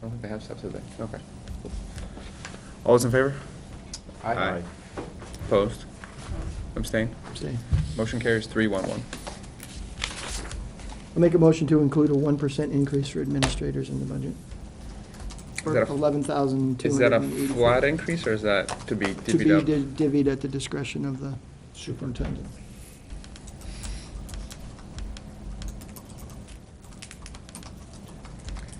don't think they have steps, do they? Okay. All those in favor? Aye. Opposed? Abstain? Abstain. Motion carries three one one. I'll make a motion to include a one percent increase for administrators in the budget. that a- For eleven thousand two Is that hundred a and eighty. flat increase, or is that to be To be divvied up? di- divvied at the discretion of the superintendent.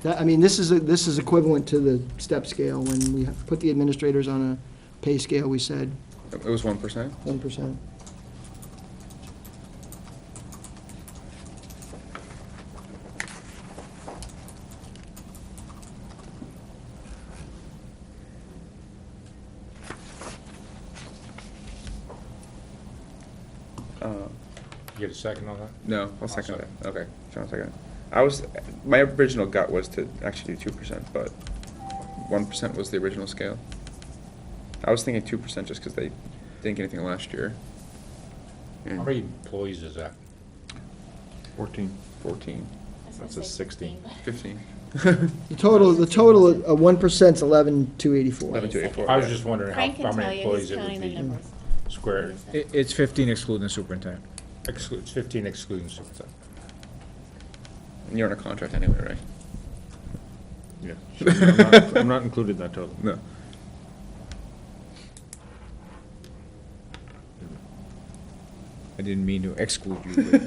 That, I mean, this is, a- this is equivalent to the step scale. When we put the administrators on a pay scale, we said It was one percent? one percent. You Get a second on that? Uh, No, I'll second that. Okay, John, second. I was, my original gut was to actually do two percent, but one percent was the original scale. I was thinking two percent just because they didn't get anything last year. How many employees is that? Fourteen. Fourteen, I was gonna That's a say 16. fifteen. The total, the total of one percent's eleven two eighty-four. Eleven two eighty four. I was just wondering how, Frank how can tell many you, he's employees it counting would the be numbers. squared. It, it's fifteen excluding the superintendent. Excludes, fifteen excluding superintendent. You're on a contract anyway, right? Yeah. I'm not- I'm not included in that total. No. I didn't mean to exclude you. but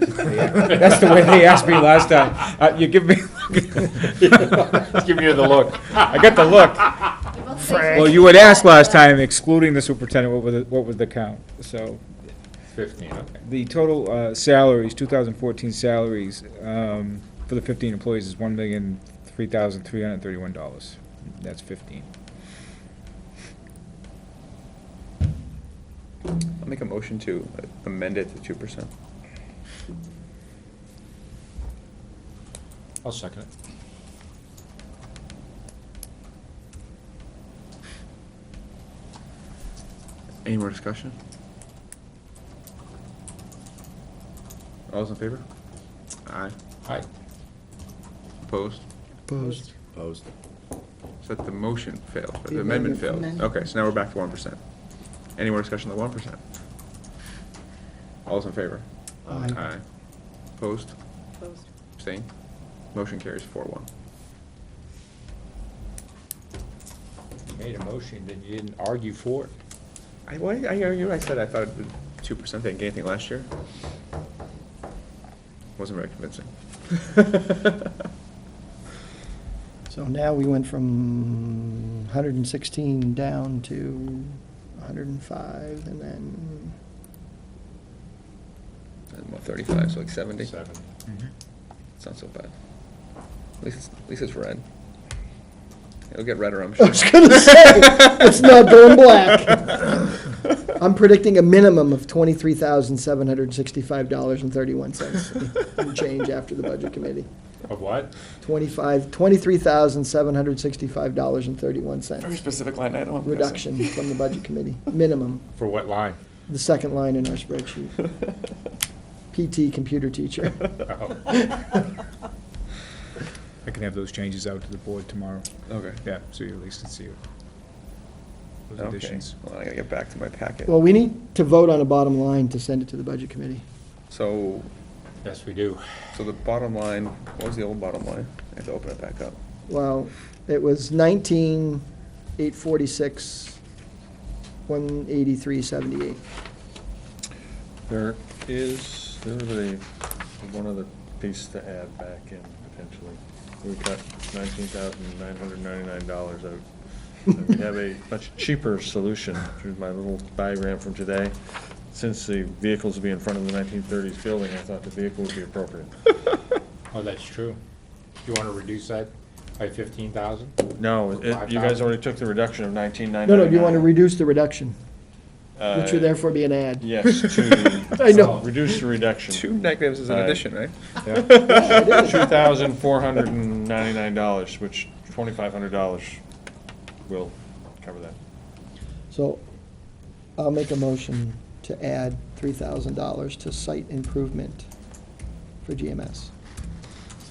That's the way they asked me last time. Uh, you give me, He's giving you the look. I got the look. We both say Well, you had asked last time excluding the superintendent, what was, the- what was the count? So Fifteen, okay. the total uh, salaries, two thousand fourteen salaries, um, for the fifteen employees is one million, three thousand, three hundred and thirty-one dollars. That's fifteen. I'll make a motion to amend it to two percent. I'll second it. Any more discussion? All those in favor? Aye. Aye. Opposed? Opposed. Opposed. So that the motion failed, or the The amendment amendment- failed. amendment. Okay, so now we're back to one percent. Any more discussion on the one percent? All's in favor? Aye. Aye. Opposed? Opposed. Abstained? Motion carries four one. You made a motion, then you didn't argue for it. I, why, I, you, I said I thought the two percent didn't get anything last year. Wasn't very convincing. So now we went from hundred and sixteen down to hundred and five, and then And what, thirty-five, so like seventy? Seven. Mm-hmm. It's not so bad. At least, it's- at least it's red. It'll get redder, I'm sure. I was gonna say, it's not going black. I'm predicting a minimum of twenty-three thousand seven hundred and sixty-five dollars and thirty-one cents in change after the budget committee. Of what? Twenty-five, twenty-three thousand seven hundred sixty-five dollars and thirty-one cents specific line item. I'm guessing. reduction from the budget committee, minimum. For what line? The second line in our spreadsheet. PT, computer teacher. Oh, I can have those changes out to the board tomorrow. Okay. Yeah, so you at least can see it. Those Okay, additions. well, I gotta get back to my packet. Well, we need to vote on a bottom line to send it to the budget committee. So, Yes, we do. so the bottom line, what was the old bottom line? I have to open it back up. Well, it was nineteen, eight forty-six, one eighty-three, seventy-eight. There is, there was a, one other piece to add back in potentially. We cut nineteen thousand nine hundred ninety-nine dollars out. And We have a much cheaper solution through my little diagram from today. Since the vehicles will be in front of the nineteen thirties building, I thought the vehicle would be appropriate. Oh, that's true. You wanna reduce that by fifteen thousand? No, it- you guys already took the reduction of nineteen nine No, ninety-nine. no, you want to reduce the reduction, which would therefore be an ad. Yes, to I know. reduce the reduction. Two negatives is an Aye. addition, right? Two thousand four hundred and ninety-nine dollars, which twenty-five hundred dollars will cover that. So I'll make a motion to add three thousand dollars to site improvement for GMS.